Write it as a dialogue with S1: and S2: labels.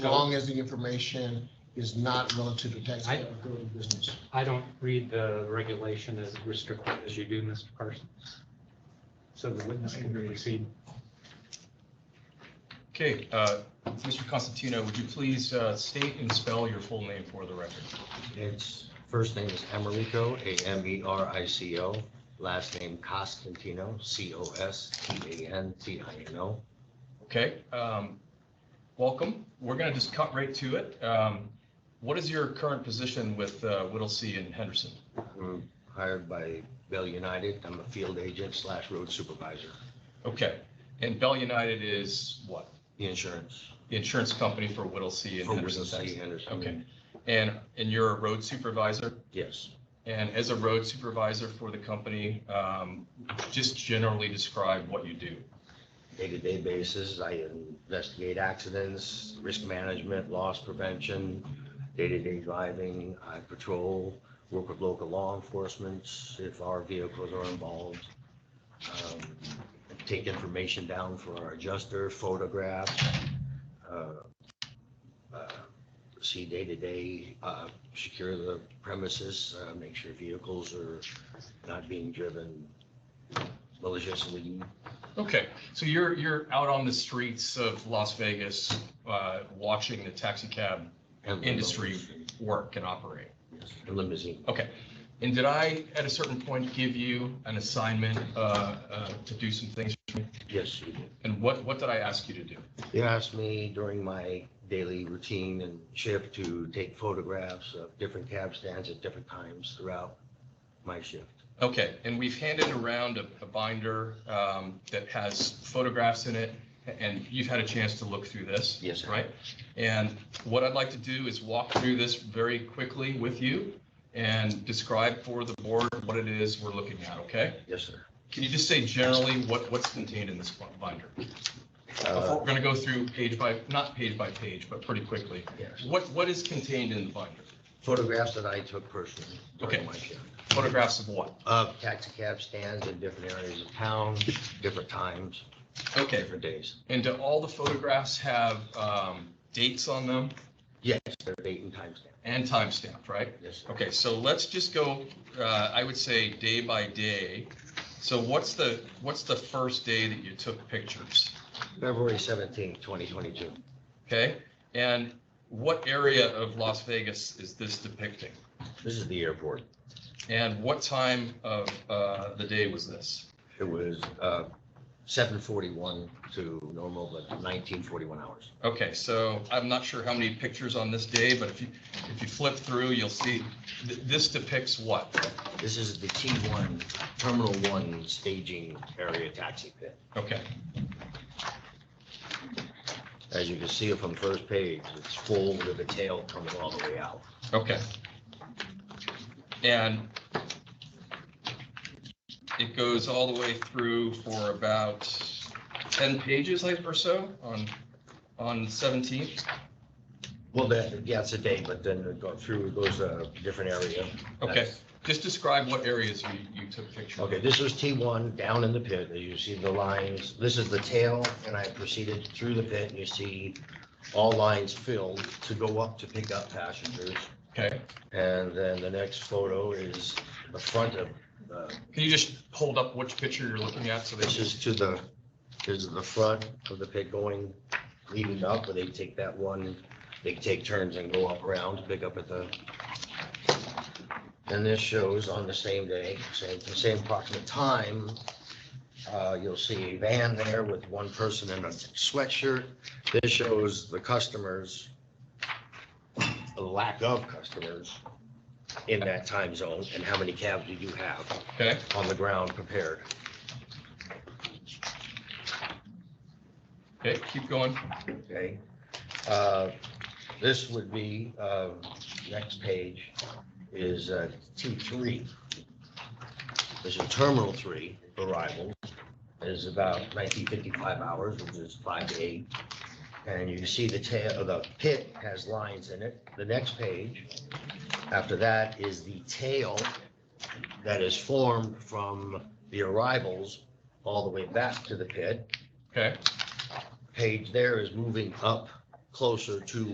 S1: long as the information is not relative to tax
S2: I-
S1: or growing business.
S2: I don't read the regulation as restrictive as you do, Mr. Parsons. So the witness can proceed.
S3: Okay, uh, Mr. Constantino, would you please uh, state and spell your full name for the record?
S4: It's, first name is Americo, E A-M-E-R-I-C-O, last name Costantino, C-O-S-T-A-N-T-I-N-O.
S3: Okay, um, welcome. We're going to just cut right to it. Um, What is your current position with uh, Whittlesey and Henderson?
S4: I'm hired by Bell United, I'm a field agent slash road supervisor,
S3: Okay, and Bell United is what?
S4: the insurance.
S3: The insurance company for Whittlesey and
S4: for
S3: Henderson.
S4: Whittlesey
S3: Texas.
S4: Henderson.
S3: Okay, and, and you're a road supervisor?
S4: Yes,
S3: And as a road supervisor for the company, um, just generally describe what you do.
S4: day-to-day basis, I investigate accidents, risk management, loss prevention, day-to-day driving, I patrol, work with local law enforcement if our vehicles are involved. Um, Take information down for our adjuster, photographs. uh, uh, See day-to-day, uh, secure the premises, uh, make sure vehicles are not being driven maliciously.
S3: Okay, so you're, you're out on the streets of Las Vegas, uh, watching the taxi cab
S4: and-
S3: industry work and operate.
S4: A Limousine.
S3: Okay, and did I, at a certain point, give you an assignment, uh, uh, to do some things?
S4: Yes, you did.
S3: And what, what did I ask you to do?
S4: You asked me during my daily routine and shift to take photographs of different cab stands at different times throughout my shift.
S3: Okay, and we've handed around a a binder um, that has photographs in it, and you've had a chance to look through this.
S4: Yes, sir.
S3: Right? And what I'd like to do is walk through this very quickly with you and describe for the board what it is we're looking at, okay?
S4: Yes, sir.
S3: Can you just say generally what, what's contained in this binder? Before-
S4: Uh,
S3: We're going to go through page by, not page by page, but pretty quickly.
S4: yes.
S3: What, what is contained in the binder?
S4: Photographs that I took personally during
S3: Okay.
S4: my shift.
S3: Photographs of what?
S4: Of taxi cab stands in different areas of town, different times,
S3: Okay,
S4: different days.
S3: and do all the photographs have um, dates on them?
S4: Yes, they're date and time stamp.
S3: And timestamped, right?
S4: Yes, sir.
S3: Okay, so let's just go, uh, I would say day by day. So what's the, what's the first day that you took pictures?
S4: February seventeenth, twenty twenty-two.
S3: Okay? And what area of Las Vegas is this depicting?
S4: This is the airport.
S3: And what time of, uh, the day was this?
S4: It was uh, 7:41 to normal, but 19:41 hours.
S3: Okay, so I'm not sure how many pictures on this day, but if you, if you flip through, you'll see, th- this depicts what?
S4: This is the T1, Terminal 1 staging area taxi pit.
S3: Okay,
S4: As you can see from the first page, it's full with the tail coming all the way out.
S3: okay. And it goes all the way through for about 10 pages like, or so on, on 17th.
S4: Well, that, yeah, it's a day, but then it goes through, it goes a different area.
S3: Okay,
S4: That's-
S3: just describe what areas you, you took pictures. of.
S4: Okay, this was T1 down in the pit. As you see the lines, this is the tail, and I proceeded through the pit, and you see all lines filled to go up to pick up passengers.
S3: Okay,
S4: And then the next photo is the front of, uh,
S3: can you just hold up which picture you're looking at so they
S4: this
S3: should,
S4: is to the, this is the front of the pit going, leading up, where they take that one, they take turns and go up around to pick up at the. And this shows on the same day, same, the same approximate time, uh, you'll see a van there with one person in a sweatshirt. This shows the customers, the lack of customers in that time zone, and how many cabs do you have?
S3: okay?
S4: on the ground prepared.
S3: Okay, keep going.
S4: Okay. Uh, This would be, uh, next page is uh, T3. This is Terminal 3 arrival. It is about 1955 hours, which is 5 to 8. And you see the tail, of the pit has lines in it. The next page, after that, is the tail that is formed from the arrivals all the way back to the pit
S3: Okay.
S4: page there is moving up closer to